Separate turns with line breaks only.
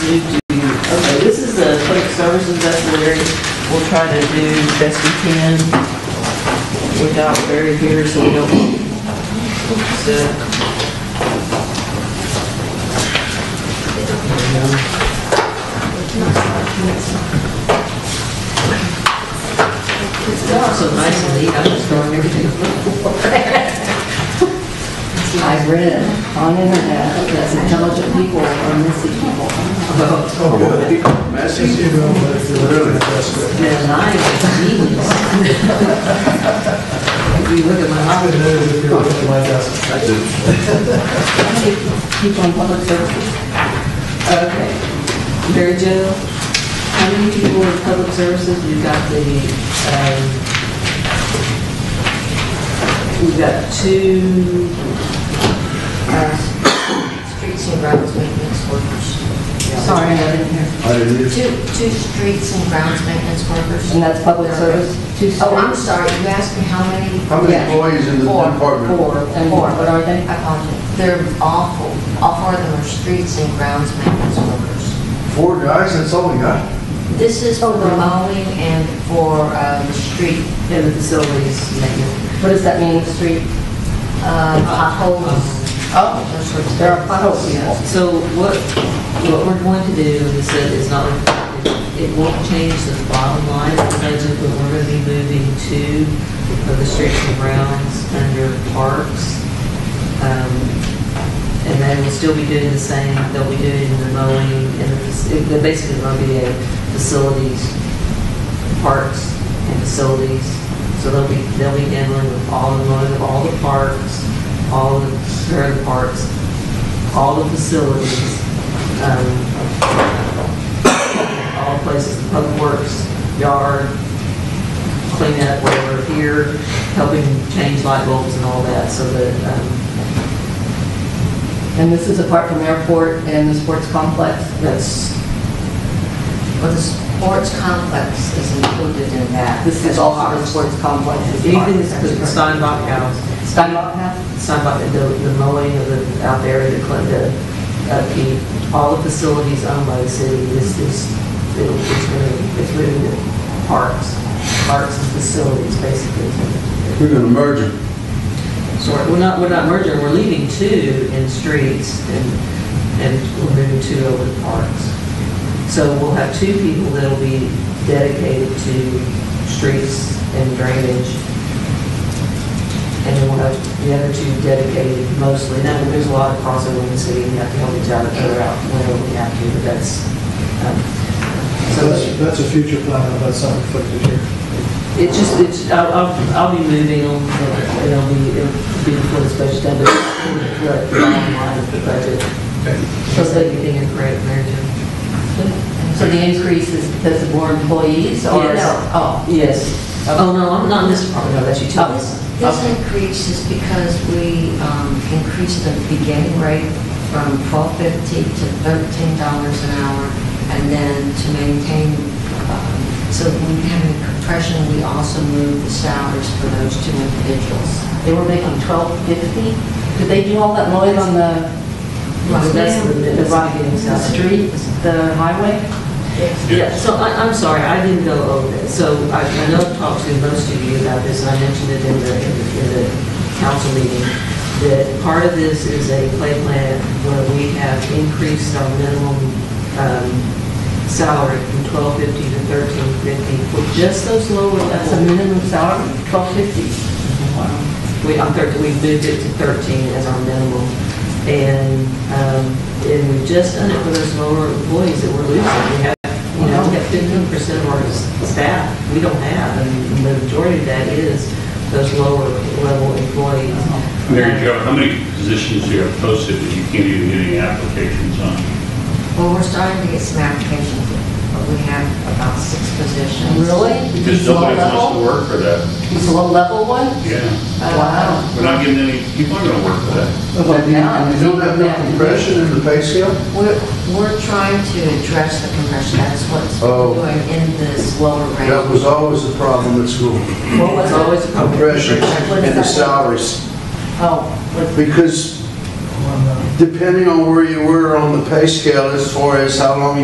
you do, okay, this is the public services, that's where we'll try to do best we can without Barry here, so we don't, uh, so. It's so nice to eat, I'm just throwing everything.
I read on internet that intelligent people are missing people. They're lying, genius. If you look at my office, people in public service.
Okay. Mary Jo, how many people in public services? We've got the, um, we've got two,
Streets and grounds maintenance workers.
Sorry, I didn't hear.
Two, two streets and grounds maintenance workers.
And that's public service? Two
Oh, I'm
streets?
sorry, you asked me how many?
How many employees in the
Four.
department?
Four, and
Four.
what are they?
I apologize. They're awful. All four of them are streets and grounds maintenance workers.
Four guys, that's all we got?
This is for mowing and for um, street
yeah, the facilities, maintenance.
What does that mean, street?
uh, potholes.
Oh.
those sorts of
There
things.
are potholes.
Yeah, so what, what we're going to do, is that it's not, it won't change the bottom line of the budget, but we're gonna be moving two of the streets and grounds under parks. Um, And they will still be doing the same, they'll be doing the mowing, and the fac- they're basically going to be a facilities, parks and facilities. So they'll be, they'll be dealing with all the mowing of all the parks, all the, or the parks, all the facilities, um, all places, public works, yard, cleanup, whatever, here, helping change light bulbs and all that, so that, um,
And this is apart from airport and the sports complex?
that's
Well, the sports complex is included in that.
This is all part of the sports complex? is part of
Even
the-
the Steinbach House,
Steinbach House?
Steinbach, the, the mowing of the, out there, the clean, the, upkeep, all the facilities owned by the city, this is, it'll- it's moving, it's moving to parks, parks and facilities, basically.
We're gonna merge them.
So we're not, we're not merging, we're leaving two in streets and, and we're moving two over to parks. So we'll have two people that'll be dedicated to streets and drainage. And then we'll have the other two dedicated mostly, now, there's a lot of crossover in the city, and you have to help each other figure out whenever we have to, but that's, um, so.
That's, that's a future plan, but that's not reflected here.
It just, it's, I'll, I'll, I'll be moving on, but it'll be, it'll be before the special time, but it'll reflect the bottom line of the budget. Plus, that you think correct, Mary Jo?
So the increase is because of more employees or?
Yes.
Oh,
Yes. Oh, no, I'm not in this department, no, that's utilities.
This this increase is because we um, increased the beginning rate from twelve fifty to thirteen dollars an hour, and then to maintain, um, so if we have any compression, we also moved the salaries for those two individuals.
they were making twelve fifty? Did they do all that mowing on the?
Well, that's the-
The rock- the street, the highway?
Yeah, so I, I'm sorry, I didn't go over it. So I, I know I've talked to most of you about this, and I mentioned it in the, in the- in the council meeting, that part of this is a play plan where we have increased our minimum, um, salary from twelve fifty to thirteen fifty for just those lower
That's a
levels.
minimum salary, twelve fifty.
We, I'm thir we moved it to 13 as our minimum. And, um, and we've just done it for those lower employees that we're losing. We have, you know, we have 15% of our s- staff we don't have, and the majority of that is those lower level employees.
Mary Jo, how many positions do you have posted that you can't even get any applications on?
Well, we're starting to get some applications, but we have about six positions.
Because nobody wants to work for that.
It's a low-level
Uh,
one?
Yeah,
Wow.
we're not getting any, people aren't gonna work for that.
But now-
You don't have no compression in the pay scale?
We're, we're trying to address the compression, that's what's
Oh.
doing in this lower rate.
That was always the problem at school,
What was
It's
it?
always a problem.
compression and the salaries.
Oh, what-
Because depending on where you were on the pay scale as far as how long